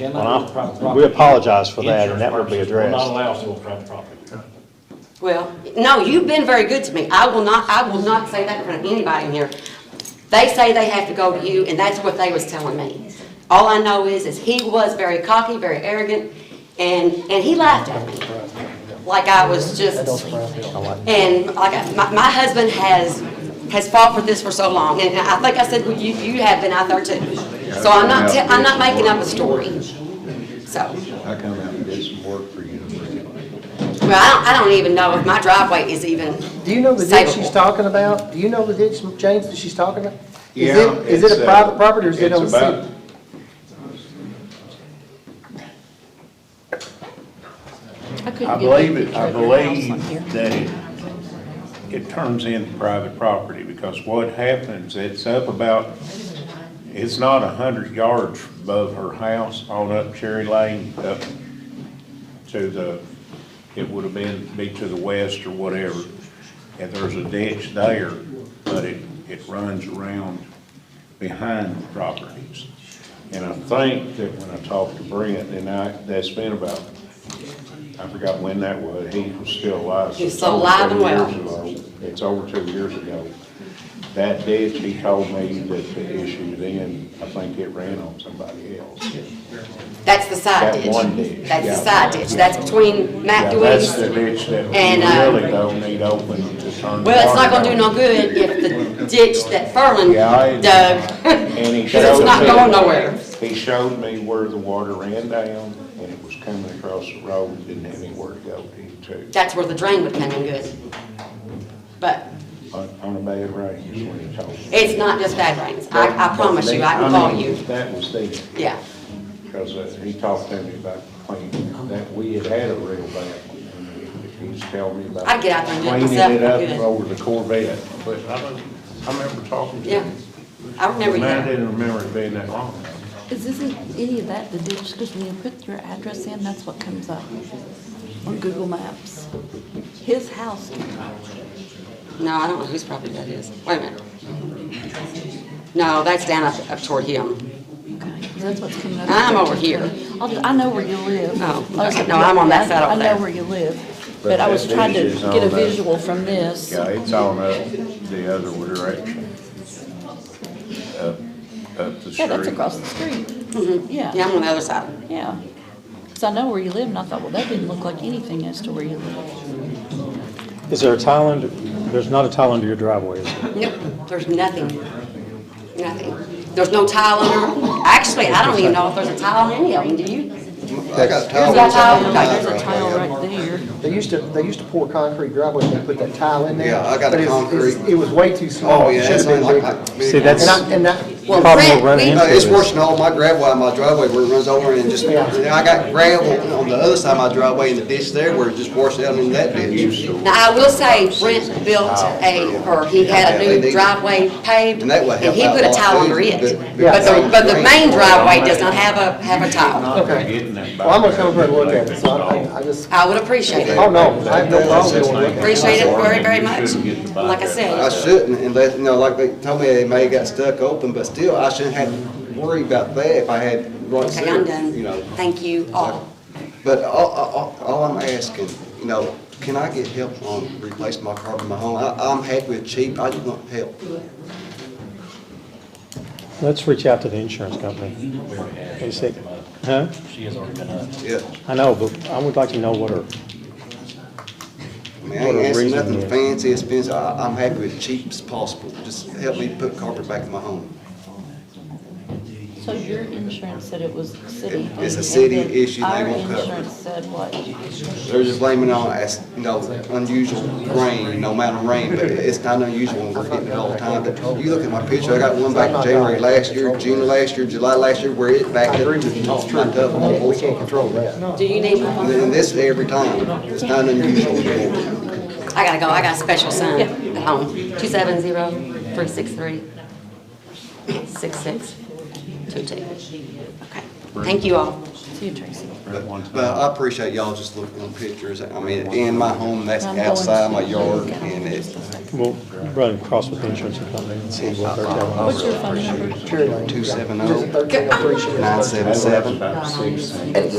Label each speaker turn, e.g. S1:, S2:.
S1: Cannot do private
S2: Well,
S1: property.
S2: We apologize for that,
S3: Insurance
S2: and that will be
S3: purposes, we're Not
S2: addressed.
S3: allowed to on private property.
S4: Well, no, you've been very good to me. I will not, I will not say that in front of anybody in here. They say they have to go to you, and that's what they was telling me. All I know is, is he was very cocky, very arrogant, and, and he laughed at me. Like I was just, and like, I- my, my husband has, has fought for this for so long, and I think I said, well, you, you have been out there too. So I'm not, te- I'm not making up a story. So.
S5: I come out and did some work for you.
S4: Well, I don't, I don't even know if my driveway is even
S6: Do you know the ditch she's
S4: Savable.
S6: talking about? Do you know the ditch, James, that she's talking about? Is
S5: Yeah,
S6: it, is it
S5: it's,
S6: a
S5: uh,
S6: private property or is it
S5: it's
S6: on the
S5: about-
S6: city?
S5: I believe it, I believe that it, it turns into private property, because what happens, it's up about, it's not a hundred yards above her house, on up Cherry Lane, up to the, it would have been, be to the west or whatever. And there's a ditch there, but it, it runs around behind the properties. And I think that when I talked to Brent, and I, that's been about, I forgot when that was, he was still alive.
S4: He's still alive and well.
S5: well. It's over two years ago. That ditch, he told me that the issue then, I think it ran on somebody else.
S4: That's the side
S5: That
S4: ditch.
S5: one ditch,
S4: That's the
S5: yeah.
S4: side ditch. That's between Matt
S5: Yeah, That's the
S4: Dewey's.
S5: ditch that
S4: And, uh,
S5: we really don't need open to turn.
S4: Well, it's not gonna do no
S5: water
S4: good if the ditch that Furland
S5: Yeah, I-
S4: dug,
S5: down. And he
S4: because it's
S5: showed
S4: not
S5: me-
S4: going nowhere.
S5: He showed me where the water ran down and it was coming across the road, and didn't have anywhere to go to,
S4: That's where the drain would come in good. But
S5: on, on a bad rain is what he told me.
S4: it's not just bad rains. I, I promise you, I can
S5: But, I
S4: call
S5: mean,
S4: you.
S5: That was the,
S4: Yeah.
S5: because uh, he talked to me about cleaning, that we had had a real bad one. and He's telling me about.
S4: I'd get out there and do it myself,
S5: Cleaning it
S4: I'd do it.
S5: up over the Corvette, but I don't, I remember talking to
S4: Yeah.
S5: him.
S4: I remember you.
S5: Man, I didn't remember it being that long.
S7: Is this any of that the ditch, because when you put your address in, that's what comes up on Google Maps. His house,
S4: No, I don't know whose property that is. Wait a minute. No, that's down up, up toward him.
S7: okay, 'cause that's what's coming up.
S4: I'm over here.
S7: I'll just, I know where you live.
S4: Oh,
S7: I was-
S4: okay. No, I'm on that side over
S7: I
S4: there.
S7: know where you live,
S5: But
S7: but I
S5: that
S7: was trying to
S5: ditch is
S7: get a
S5: on the-
S7: visual from this.
S5: Yeah, it's on up the other direction. Up, up the street.
S7: Yeah, that's across the street.
S4: Mm-hmm. Yeah,
S7: Yeah,
S4: I'm on the other side.
S7: yeah. Because I know where you live, and I thought, well, that didn't look like anything as to where you live.
S2: Is there a tile under, there's not a tile under your driveway, is there?
S4: Nope, there's nothing, nothing. There's no tile under, actually, I don't even know if there's a tile in any of them, do you?
S8: I
S4: There's
S8: got towels
S4: no
S8: on
S4: tile,
S8: my
S4: okay,
S7: There's
S4: there's
S7: a
S8: driveway.
S7: tile right there.
S6: They used to, they used to pour concrete driveway and they put that tile in there.
S8: Yeah, I got a
S6: but it's- it's-
S8: concrete.
S6: It was way too small.
S8: Oh,
S6: It
S8: yeah,
S6: should
S8: it's
S6: have been
S8: been like.
S6: bigger.
S8: my- big-
S2: See, that's-
S6: And I, and I,
S4: Well,
S2: Problem we're
S4: Brent,
S2: running
S4: we-
S8: No,
S2: into
S8: It's
S2: is-
S8: worse than all my gravel out of my driveway where it runs over and just,
S6: Yeah.
S8: and I got gravel on the other side of my driveway in the ditch there where it just washed out in that ditch.
S4: Now, I will say Brent built a, or he had a new driveway paved,
S8: And that would
S4: and he
S8: help
S4: put a
S8: out a lot
S4: tile
S8: too,
S4: under it.
S8: but-
S4: But the, but the main driveway does not have a, have a tile.
S6: okay. Well, I'm gonna come over and look at it, so I, I just,
S4: I would appreciate it.
S6: oh, no, I have no problem doing it.
S4: Appreciate it very, very much. Like I
S8: I
S4: said,
S8: shouldn't, and they, you know, like they told me, they may have got stuck open, but still, I shouldn't have to worry about that if I had right
S4: okay, I'm
S8: sewer,
S4: done.
S8: you know.
S4: Thank you all.
S8: But all, all, all I'm asking, you know, can I get help on replacing my carpet in my home? I, I'm happy with cheap, I just want help.
S2: Let's reach out to the insurance company. They say, huh?
S3: She has already been up.
S8: Yeah,
S2: I know, but I would like to know what her,
S8: I mean, I
S2: What
S8: ain't
S2: a
S8: asking
S2: reason
S8: nothing
S2: to-
S8: fancy, expensive, I, I'm happy with cheap as possible, just help me put carpet back in my home.
S7: So your insurance said it was city?
S8: It's a city
S7: and then
S8: issue, they won't cover
S7: Our
S8: it.
S7: insurance said what?
S8: They're just blaming on, as, you know, unusual rain, no amount of rain, but it's not unusual, when we're getting it all the time. But you look at my picture, I got one back in January last year, June last year, July last year, where it backed up to the top of my double.
S6: We can't control that.
S4: Do you need my phone?
S8: And then this every time, it's not unusual anymore.
S4: I gotta go, I got a special son at home, two seven zero, three six three, six six, two two. Okay, thank you all.
S7: See you, Tracy.
S5: Right, one time.
S8: But but I appreciate y'all just looking at pictures. I mean, in my home, that's
S7: I'm going
S8: outside my
S7: to-
S8: yard, and it's
S2: We'll run across with the insurance company and see what they're telling us.
S7: What's your phone number?
S8: two seven
S6: There's a
S8: oh
S6: thirteen, I appreciate it.
S8: nine seven seven.
S5: About six.